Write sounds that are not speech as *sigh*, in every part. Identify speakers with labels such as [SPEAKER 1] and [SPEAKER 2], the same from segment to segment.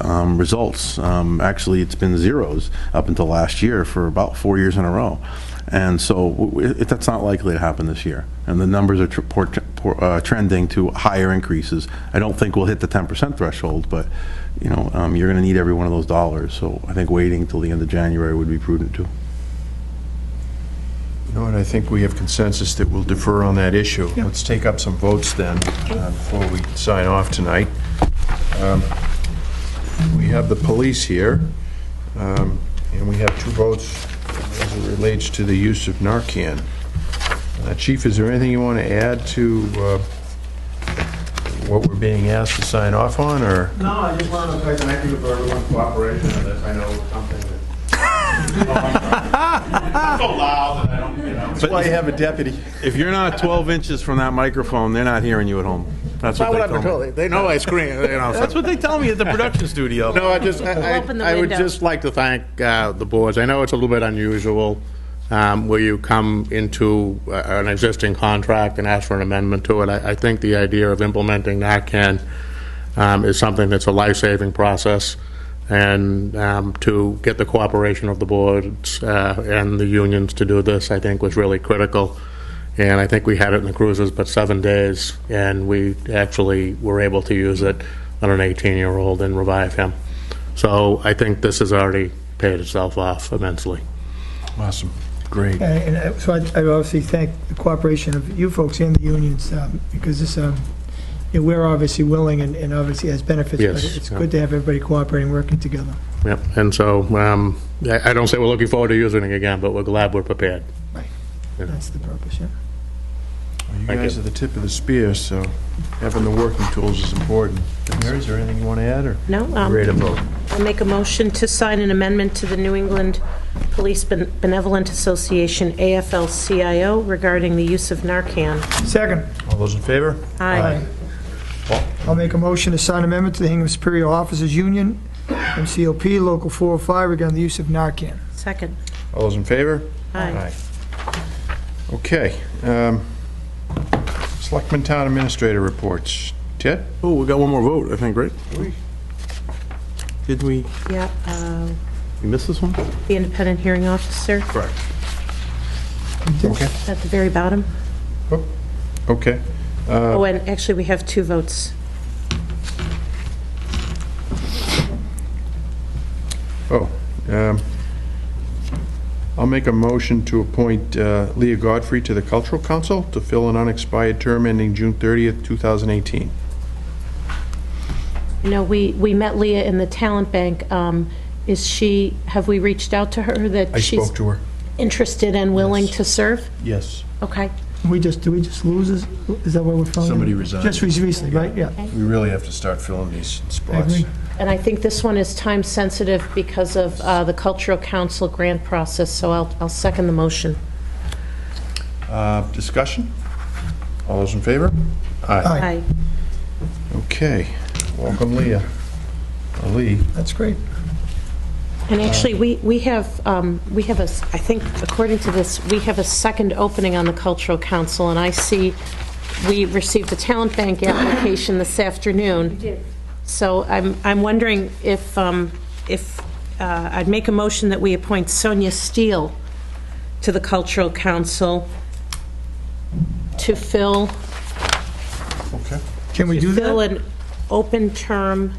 [SPEAKER 1] um, results. Um, Actually, it's been zeros up until last year for about four years in a row. And so w- w- it- that's not likely to happen this year. And the numbers are tr- port- por- uh, trending to higher increases. I don't think we'll hit the 10% threshold, but, you know, um, you're going to need every one of those dollars. So I think waiting till the end of January would be prudent, too.
[SPEAKER 2] You know what, I think we have consensus that we'll defer on that issue. Let's take up some votes then, uh, before we sign off tonight. Um, We have the police here, um, and we have two votes as it relates to the use of Narcan. Uh, Chief, is there anything you want to add to uh, what we're being asked to sign off on, or?
[SPEAKER 3] No, I just wanted to say thank you for everyone's cooperation in this. I know it's something that. *laughs* It's so loud that I don't, you know.
[SPEAKER 2] That's why you have a deputy.
[SPEAKER 1] If you're not 12 inches from that microphone, they're not hearing you at home. That's what they
[SPEAKER 3] That's what
[SPEAKER 1] tell
[SPEAKER 3] I've been
[SPEAKER 1] me.
[SPEAKER 3] told. They know I scream, you know. so-
[SPEAKER 1] That's what they tell me at the production studio.
[SPEAKER 3] No, I just, I,
[SPEAKER 4] open the
[SPEAKER 3] I- I would
[SPEAKER 4] window.
[SPEAKER 3] just like to thank uh, the boards. I know it's a little bit unusual um, where you come into uh, an existing contract and ask for an amendment to it. I, I think the idea of implementing NACAN um, is something that's a life-saving process, and um, to get the cooperation of the boards uh, and the unions to do this, I think, was really critical. And I think we had it in the cruisers, but seven days, and we actually were able to use it on an 18-year-old and revive him. So I think this has already paid itself off immensely.
[SPEAKER 2] Awesome, great.
[SPEAKER 5] Yeah, And I- so I I obviously thank the cooperation of you folks and the unions, um, because this, um, you know, we're obviously willing and and obviously has benefits, but
[SPEAKER 3] Yes,
[SPEAKER 5] it's
[SPEAKER 3] yeah.
[SPEAKER 5] good to have everybody cooperating, working together.
[SPEAKER 3] Yep, and so um, I I don't say we're looking forward to using it again, but we're glad we're prepared.
[SPEAKER 5] That's the purpose, yeah.
[SPEAKER 2] Well, You
[SPEAKER 3] Thank
[SPEAKER 2] guys
[SPEAKER 3] you.
[SPEAKER 2] are the tip of the spear, so having the working tools is important. Mary, is there anything you want to add, or?
[SPEAKER 4] No, um,
[SPEAKER 2] Ready to vote.
[SPEAKER 4] I make a motion to sign an amendment to the New England Police Ben- Benevolent Association, AFL-CIO, regarding the use of Narcan.
[SPEAKER 5] Second,
[SPEAKER 2] All those in favor?
[SPEAKER 4] Aye.
[SPEAKER 5] I'll make a motion to sign amendment to the Hingham Superior Officers Union, MCOP Local 405, regarding the use of Narcan.
[SPEAKER 4] Second.
[SPEAKER 2] All those in favor?
[SPEAKER 4] Aye.
[SPEAKER 2] Okay. um, Selectmen Town Administrator reports. Ted?
[SPEAKER 1] Oh, we got one more vote, I think, right? Did we,
[SPEAKER 4] Yeah, uh,
[SPEAKER 1] we miss this one?
[SPEAKER 4] the independent hearing officer
[SPEAKER 1] Correct.
[SPEAKER 2] Okay.
[SPEAKER 4] at the very bottom.
[SPEAKER 2] Okay. Uh,
[SPEAKER 4] Oh, and actually, we have two votes.
[SPEAKER 2] Oh. um, I'll make a motion to appoint uh, Leah Godfrey to the Cultural Council to fill an unexpired term ending June 30th, 2018.
[SPEAKER 4] You know, we, we met Leah in the talent bank. Um, Is she, have we reached out to her that
[SPEAKER 2] I
[SPEAKER 4] she's
[SPEAKER 2] spoke to her.
[SPEAKER 4] interested and willing
[SPEAKER 2] Yes.
[SPEAKER 4] to serve?
[SPEAKER 2] Yes.
[SPEAKER 4] Okay.
[SPEAKER 5] We just, do we just lose this? Is that what we're filling? in?
[SPEAKER 2] Somebody resigned.
[SPEAKER 5] Just recently, right, yeah.
[SPEAKER 2] We really have to start filling these spots.
[SPEAKER 5] agree.
[SPEAKER 4] And I think this one is time-sensitive because of uh, the Cultural Council grant process, so I'll, I'll second the motion.
[SPEAKER 2] Uh, Discussion? All those in favor?
[SPEAKER 5] Aye.
[SPEAKER 4] Aye.
[SPEAKER 2] Okay, welcome Leah. Uh, Ali,
[SPEAKER 5] That's great.
[SPEAKER 4] And actually, we, we have, um, we have a, s- I think, according to this, we have a second opening on the Cultural Council, and I see, we received a talent bank application this afternoon. So I'm, I'm wondering if, um, if, uh, I'd make a motion that we appoint Sonia Steele to the Cultural Council to fill
[SPEAKER 2] okay.
[SPEAKER 5] Can we do
[SPEAKER 4] fill
[SPEAKER 5] that?
[SPEAKER 4] an open term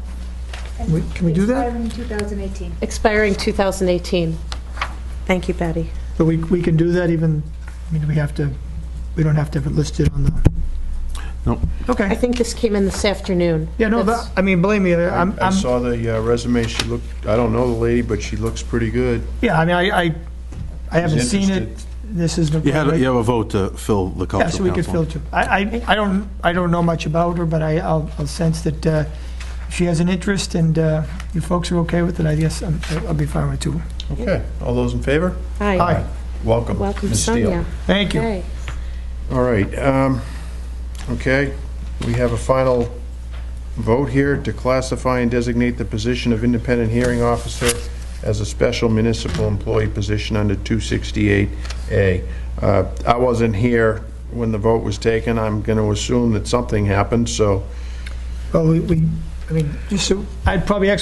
[SPEAKER 5] We- Can we do that?
[SPEAKER 6] Expiring 2018.
[SPEAKER 4] expiring 2018. Thank you, Patty.
[SPEAKER 5] But we, we can do that even, I mean, we have to, we don't have to have it listed on the...
[SPEAKER 1] Nope.
[SPEAKER 4] I
[SPEAKER 5] Okay.
[SPEAKER 4] think this came in this afternoon.
[SPEAKER 5] Yeah, no,
[SPEAKER 4] That's-
[SPEAKER 5] that- I mean, believe me, I'm,
[SPEAKER 2] I
[SPEAKER 5] I'm,
[SPEAKER 2] saw the uh, resume, she looked, I don't know the lady, but she looks pretty good.
[SPEAKER 5] yeah, I mean, I, I- I haven't seen it.
[SPEAKER 2] interested.
[SPEAKER 5] This is the...
[SPEAKER 1] You had, you have a vote to fill the cultural
[SPEAKER 5] Yeah,
[SPEAKER 1] council.
[SPEAKER 5] so we could filter. I, I, I don't, I don't know much about her, but I, I'll, I'll sense that uh, she has an interest and uh, you folks are okay with it, I guess, I'm- I'll be fine with it too.
[SPEAKER 2] Okay, all those in favor?
[SPEAKER 4] Hi,
[SPEAKER 5] Hi,
[SPEAKER 2] Welcome.
[SPEAKER 4] welcome
[SPEAKER 2] Ms. Steele.
[SPEAKER 4] Sonia.
[SPEAKER 5] thank you.
[SPEAKER 4] Hey.
[SPEAKER 2] All right, um, okay, we have a final vote here to classify and designate the position of independent hearing officer as a special municipal employee position under 268A. Uh, I wasn't here when the vote was taken, I'm going to assume that something happened, so
[SPEAKER 5] Well, we- we, I mean, just so, I'd probably actually